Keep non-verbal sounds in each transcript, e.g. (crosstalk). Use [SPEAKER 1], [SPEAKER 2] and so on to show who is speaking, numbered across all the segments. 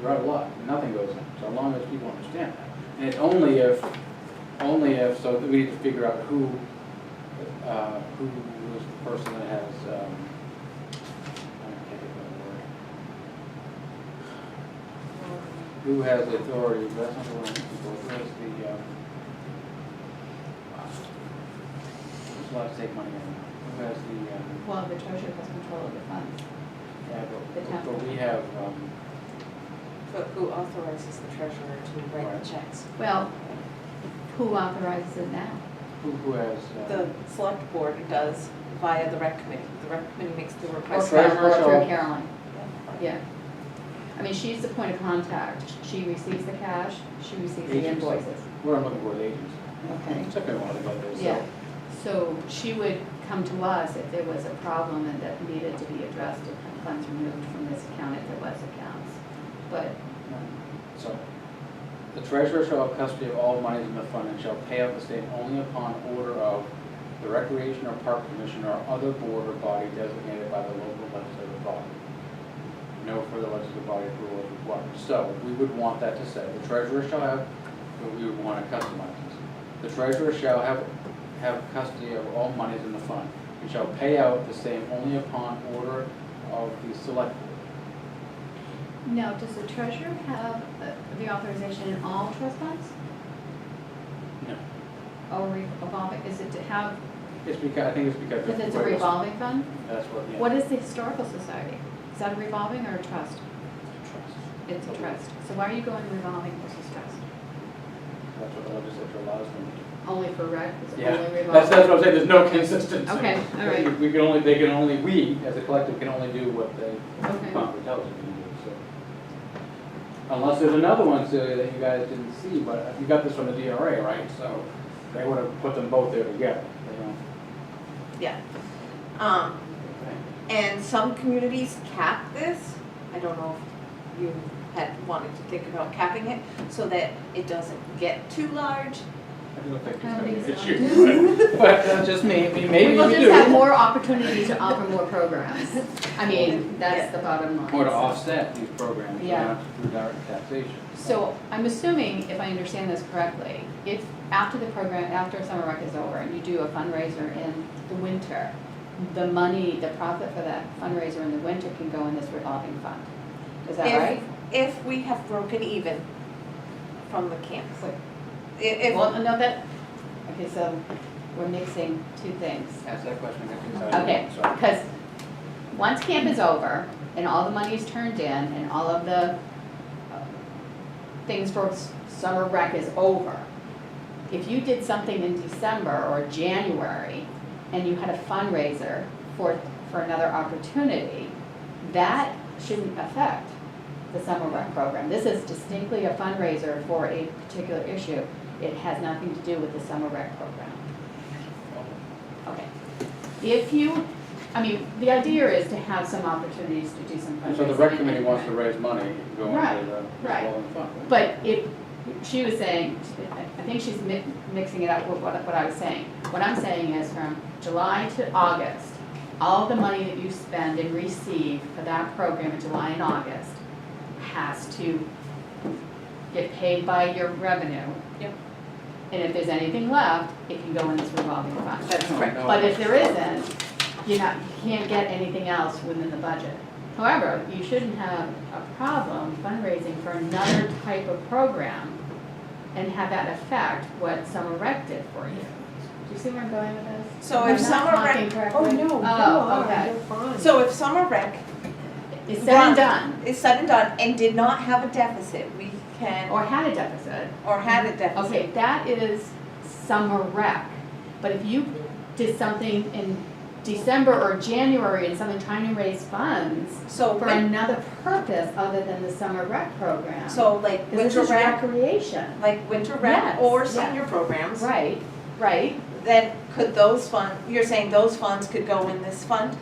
[SPEAKER 1] grow a lot, and nothing goes in, so long as people understand that. And it's only if, only if, so we need to figure out who, uh, who is the person that has, um, I can't think of the word. Who has the authority, that's not the one, who has the, um, who's allowed to take money in, who has the, um,
[SPEAKER 2] Well, the treasurer has control of the funds.
[SPEAKER 1] yeah,
[SPEAKER 2] The
[SPEAKER 1] but,
[SPEAKER 2] town.
[SPEAKER 1] but we have, um,
[SPEAKER 3] But who authorizes the treasurer to write
[SPEAKER 1] Right.
[SPEAKER 3] the checks?
[SPEAKER 2] Well, who authorizes it now?
[SPEAKER 1] who, who has, uh,
[SPEAKER 3] The select board does via the rec committee. The rec committee makes the
[SPEAKER 2] Or
[SPEAKER 3] request.
[SPEAKER 1] Okay.
[SPEAKER 2] Carol- or
[SPEAKER 1] Treasurer.
[SPEAKER 2] through Caroline, yeah. I mean, she's the point of contact. She receives the cash, she receives the
[SPEAKER 1] Agency.
[SPEAKER 2] invoices.
[SPEAKER 1] what I'm looking for, the agents.
[SPEAKER 2] Okay.
[SPEAKER 1] It took me a while to get this, so.
[SPEAKER 2] Yeah, so she would come to us if there was a problem and that needed to be addressed, if funds removed from this account, if there was accounts. But,
[SPEAKER 1] So, the treasurer shall have custody of all monies in the fund and shall pay out the same only upon order of the recreation or park commission or other board or body designated by the local legislative body. No further legislative body approval is required. So, we would want that to say, the treasurer shall have, but we would want to customize this. The treasurer shall have, have custody of all monies in the fund and shall pay out the same only upon order of the select board.
[SPEAKER 2] now, does the treasurer have uh, the authorization in all trust funds?
[SPEAKER 1] No.
[SPEAKER 2] Or re- revolving, is it to have,
[SPEAKER 1] It's because, I think it's because.
[SPEAKER 2] because it's a
[SPEAKER 1] of-
[SPEAKER 2] revolving fund?
[SPEAKER 1] That's what, yeah.
[SPEAKER 2] What is the historical society? Is that a revolving or a trust?
[SPEAKER 1] Trust.
[SPEAKER 2] It's a trust. So why are you going revolving versus trust?
[SPEAKER 1] That's what the legislature allows them to do.
[SPEAKER 2] Only for rec, is it
[SPEAKER 1] Yeah,
[SPEAKER 2] only revolving?
[SPEAKER 1] That's, that's what I'm saying, there's no consistency.
[SPEAKER 2] Okay, all right.
[SPEAKER 1] We can only, they can only, we, as a collective, can only do what they,
[SPEAKER 2] Okay.
[SPEAKER 1] Concord tells us to do, so. Unless there's another one, Celia, that you guys didn't see, but you got this from the DRA, right? So they would have put them both there together, they don't.
[SPEAKER 3] Yeah. Um, and some communities cap this. I don't know if you had wanted to think about capping it so that it doesn't get too large.
[SPEAKER 1] I don't think it's
[SPEAKER 2] How
[SPEAKER 1] gonna be an
[SPEAKER 2] many is
[SPEAKER 1] (laughs) issue, but, but that's just me, maybe you do.
[SPEAKER 2] We'll just have more opportunity to offer more programs. (laughs) I mean, that's the bottom line.
[SPEAKER 1] Or to offset these programs, you
[SPEAKER 2] Yeah.
[SPEAKER 1] know, through direct taxation.
[SPEAKER 2] So I'm assuming, if I understand this correctly, if after the program, after summer rec is over and you do a fundraiser in the winter, the money, the profit for that fundraiser in the winter can go in this revolving fund. Is that
[SPEAKER 3] If-
[SPEAKER 2] right?
[SPEAKER 3] If we have broken even from the camps.
[SPEAKER 2] So-
[SPEAKER 3] If,
[SPEAKER 2] Well, no, that, okay, so we're mixing two things.
[SPEAKER 1] Ask that question again, because I
[SPEAKER 2] Okay,
[SPEAKER 1] don't know, so.
[SPEAKER 2] because once camp is over and all the money is turned in and all of the uh, things for s- summer rec is over, if you did something in December or January and you had a fundraiser for, for another opportunity, that shouldn't affect the summer rec program. This is distinctly a fundraiser for a particular issue. It has nothing to do with the summer rec program. Okay. If you, I mean, the idea is to have some opportunities to do some fundraising.
[SPEAKER 1] So the rec committee wants to raise money, you can go
[SPEAKER 2] Right,
[SPEAKER 1] into the
[SPEAKER 2] right.
[SPEAKER 1] revolving fund. right?
[SPEAKER 2] But if, she was saying, I think she's mi- mixing it up with what, what I was saying. What I'm saying is from July to August, all the money that you spend and receive for that program in July and August has to get paid by your revenue.
[SPEAKER 3] Yep.
[SPEAKER 2] And if there's anything left, it can go in this revolving fund.
[SPEAKER 3] that's
[SPEAKER 1] No,
[SPEAKER 3] correct.
[SPEAKER 1] no.
[SPEAKER 2] But if there isn't, you're not, you can't get anything else within the budget. However, you shouldn't have a problem fundraising for another type of program and have that affect what Summer Rec did for you. Do you see where I'm going with this?
[SPEAKER 3] So if
[SPEAKER 2] Am I not
[SPEAKER 3] Summer Rec-
[SPEAKER 2] talking correctly?
[SPEAKER 4] Oh, no,
[SPEAKER 2] Oh,
[SPEAKER 4] no,
[SPEAKER 2] okay.
[SPEAKER 4] you're fine.
[SPEAKER 3] So if summer rec
[SPEAKER 2] It's said
[SPEAKER 3] Right.
[SPEAKER 2] and done,
[SPEAKER 3] is said and done and did not have a deficit, we can,
[SPEAKER 2] or had a deficit.
[SPEAKER 3] or had a deficit.
[SPEAKER 2] Okay, that is summer rec. But if you did something in December or January and something trying to raise funds,
[SPEAKER 3] So,
[SPEAKER 2] for
[SPEAKER 3] win-
[SPEAKER 2] another purpose other than the summer rec program.
[SPEAKER 3] so like
[SPEAKER 2] 'Cause this
[SPEAKER 3] winter
[SPEAKER 2] is
[SPEAKER 3] rec,
[SPEAKER 2] recreation.
[SPEAKER 3] like winter
[SPEAKER 2] Yes,
[SPEAKER 3] rec or
[SPEAKER 2] yeah.
[SPEAKER 3] senior programs,
[SPEAKER 2] Right, right.
[SPEAKER 3] then could those fund, you're saying those funds could go in this fund?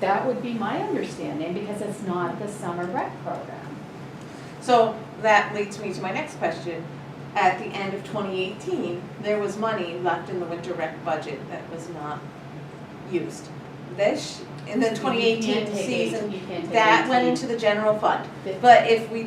[SPEAKER 2] That would be my understanding because it's not the summer rec program.
[SPEAKER 3] So that leads me to my next question. At the end of twenty eighteen, there was money left in the winter rec budget that was not used. This, in the
[SPEAKER 2] You
[SPEAKER 3] twenty eighteen
[SPEAKER 2] can't take eight-
[SPEAKER 3] season,
[SPEAKER 2] you can't take
[SPEAKER 3] that went
[SPEAKER 2] 18.
[SPEAKER 3] into the general fund.
[SPEAKER 2] Fif-
[SPEAKER 3] But if we